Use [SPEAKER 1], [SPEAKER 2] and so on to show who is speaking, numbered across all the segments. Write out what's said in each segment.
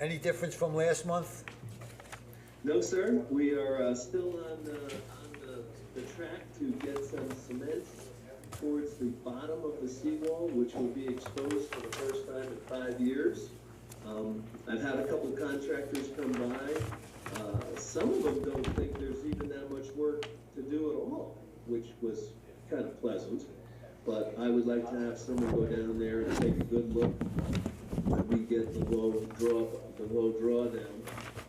[SPEAKER 1] Any difference from last month?
[SPEAKER 2] No, sir, we are uh, still on, uh, on the, the track to get some cement towards the bottom of the seawall, which will be exposed for the first time in five years. Um, I've had a couple contractors come by. Uh, Some of them don't think there's even that much work to do at all, which was kind of pleasant. But I would like to have someone go down there and take a good look, when we get the low draw, the low drawdown.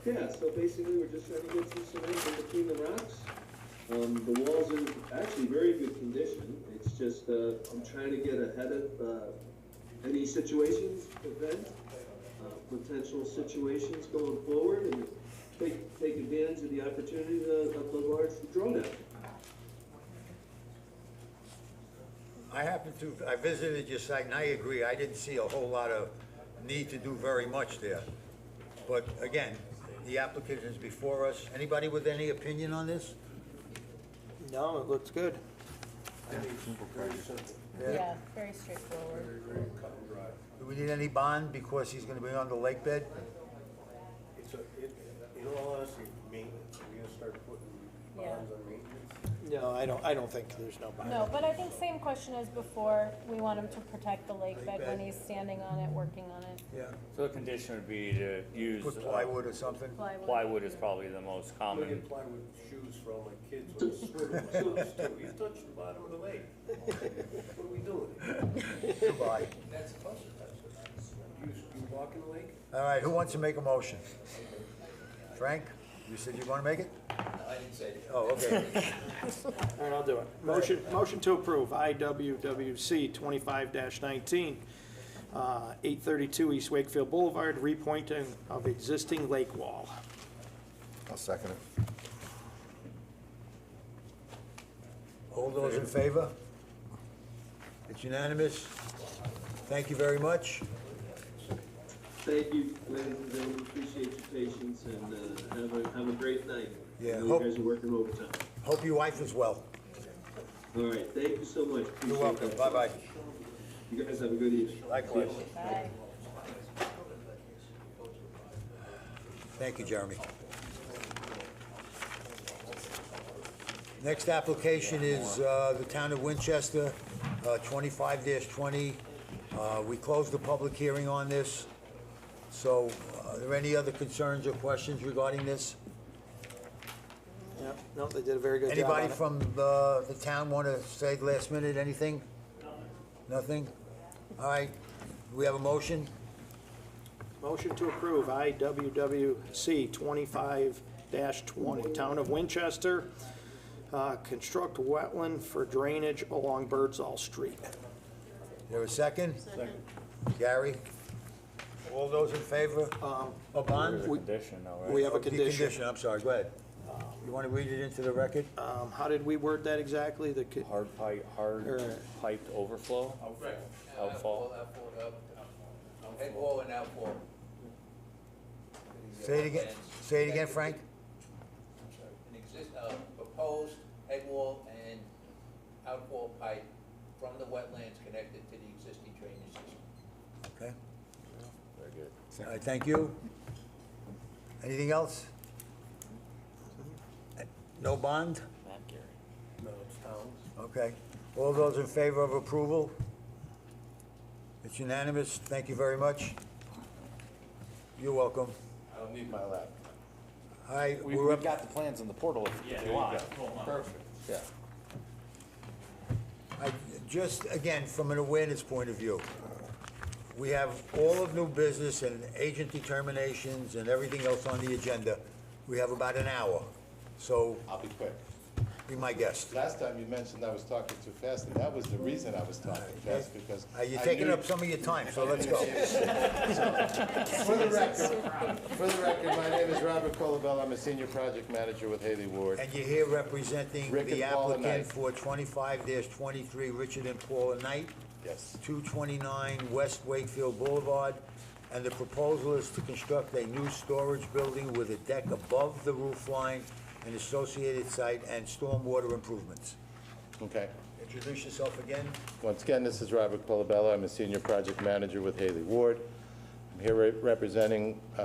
[SPEAKER 2] Yeah, so basically, we're just trying to get some cement in between the rocks. Um, the wall's in actually very good condition, it's just, uh, I'm trying to get ahead of, uh, any situations, event, uh, potential situations going forward, and take, take advantage of the opportunity of, of the large drawdown.
[SPEAKER 1] I happened to, I visited your site, and I agree, I didn't see a whole lot of need to do very much there. But again, the applicant is before us. Anybody with any opinion on this?
[SPEAKER 3] No, it looks good.
[SPEAKER 4] Yeah, very straightforward.
[SPEAKER 1] Do we need any bond because he's gonna be on the lake bed?
[SPEAKER 5] It's a, it, in all honesty, maintenance, we're gonna start putting
[SPEAKER 4] Yeah.
[SPEAKER 5] bonds on maintenance.
[SPEAKER 3] No, I don't, I don't think there's no bond.
[SPEAKER 4] No, but I think same question as before, we want him to protect the lake bed when he's standing on it, working on it.
[SPEAKER 1] Yeah.
[SPEAKER 6] So the condition would be to use.
[SPEAKER 1] Put
[SPEAKER 6] uh,
[SPEAKER 1] plywood or something?
[SPEAKER 6] Plywood is probably the most
[SPEAKER 5] I'm gonna
[SPEAKER 6] common.
[SPEAKER 5] apply with shoes for all my kids when they swim in the house too. You touch the bottom of the lake. What are we doing?
[SPEAKER 1] Goodbye.
[SPEAKER 5] You, you walk in the lake?
[SPEAKER 1] All right, who wants to make a motion? Frank, you said you wanna make it? No, I didn't say it. Oh, okay.
[SPEAKER 3] All right, I'll do it. Motion, motion to approve IWWC twenty-five nineteen, uh, eight thirty-two East Wakefield Boulevard, repointing of existing lake wall.
[SPEAKER 7] I'll second it.
[SPEAKER 1] All those in favor? It's unanimous. Thank you very much.
[SPEAKER 2] Thank you, ladies and gentlemen, appreciate your patience, and, uh, have a, have a great night.
[SPEAKER 1] Yeah,
[SPEAKER 2] I know
[SPEAKER 1] hope-
[SPEAKER 2] You guys are working overtime.
[SPEAKER 1] Hope your wife is well.
[SPEAKER 2] All right, thank you so much.
[SPEAKER 1] You're
[SPEAKER 2] Appreciate
[SPEAKER 1] welcome.
[SPEAKER 2] that.
[SPEAKER 1] Bye-bye.
[SPEAKER 2] You guys have a good evening.
[SPEAKER 1] Likewise.
[SPEAKER 4] Bye.
[SPEAKER 1] Thank you, Jeremy. Next application is uh, the Town of Winchester, uh, 25-20. Uh, We closed the public hearing on this, so uh, are there any other concerns or questions regarding this?
[SPEAKER 3] Yep, no, they did a very good job on
[SPEAKER 1] Anybody
[SPEAKER 3] it.
[SPEAKER 1] from uh, the town want to say last minute anything? Nothing? All right, we have a motion?
[SPEAKER 3] Motion to approve IWWC twenty-five twenty, Town of Winchester, uh, construct wetland for drainage along Birdsall Street.
[SPEAKER 1] There a second? Second. Gary? All those in favor?
[SPEAKER 3] Um,
[SPEAKER 1] A
[SPEAKER 6] There's
[SPEAKER 1] Oh, bond?
[SPEAKER 6] a
[SPEAKER 3] We-
[SPEAKER 6] condition though, right?
[SPEAKER 3] We have a
[SPEAKER 1] The
[SPEAKER 3] condition.
[SPEAKER 1] I'm sorry, go ahead. You want to read it into the record?
[SPEAKER 3] Um, how did we word that exactly? The, co-
[SPEAKER 6] Hard pipe, hard
[SPEAKER 3] Er.
[SPEAKER 6] piped overflow?
[SPEAKER 8] Right.
[SPEAKER 6] Outfall.
[SPEAKER 8] Outfall, up. Head wall and outfall.
[SPEAKER 1] Say it again, say it again, Frank?
[SPEAKER 8] An exist, uh, proposed head wall and outfall pipe from the wetlands connected to the existing drainage system.
[SPEAKER 1] Okay.
[SPEAKER 6] Very good.
[SPEAKER 1] All right, thank you. Anything else? No bond?
[SPEAKER 5] No, it's towns.
[SPEAKER 1] Okay. All those in favor of approval? It's unanimous. Thank you very much. You're welcome.
[SPEAKER 9] I don't need my lab.
[SPEAKER 1] All right,
[SPEAKER 9] We,
[SPEAKER 1] we're
[SPEAKER 9] we've
[SPEAKER 1] up,
[SPEAKER 9] got the plans in the portal if you want. Perfect. Yeah.
[SPEAKER 1] I- just again, from an awareness point of view, we have all of new business and agent determinations and everything else on the agenda. We have about an hour, so
[SPEAKER 9] I'll be quick.
[SPEAKER 1] be my guest.
[SPEAKER 9] Last time you mentioned I was talking too fast, and that was the reason I was talking fast, because.
[SPEAKER 1] Uh, You're
[SPEAKER 9] I
[SPEAKER 1] taking
[SPEAKER 9] knew-
[SPEAKER 1] up some of your time, so let's go.
[SPEAKER 9] For the record, for the record, my name is Robert Colabella. I'm a senior project manager with Haley Ward.
[SPEAKER 1] And you're here representing
[SPEAKER 9] Rick
[SPEAKER 1] the
[SPEAKER 9] and Paula
[SPEAKER 1] applicant
[SPEAKER 9] Knight.
[SPEAKER 1] for twenty-five twenty-three, Richard and Paula Knight,
[SPEAKER 9] Yes.
[SPEAKER 1] 229 West Wakefield Boulevard, and the proposal is to construct a new storage building with a deck above the roof line and associated site and stormwater improvements.
[SPEAKER 9] Okay.
[SPEAKER 1] Introduce yourself again.
[SPEAKER 9] Once again, this is Robert Colabella. I'm a senior project manager with Haley Ward. I'm here re- representing uh,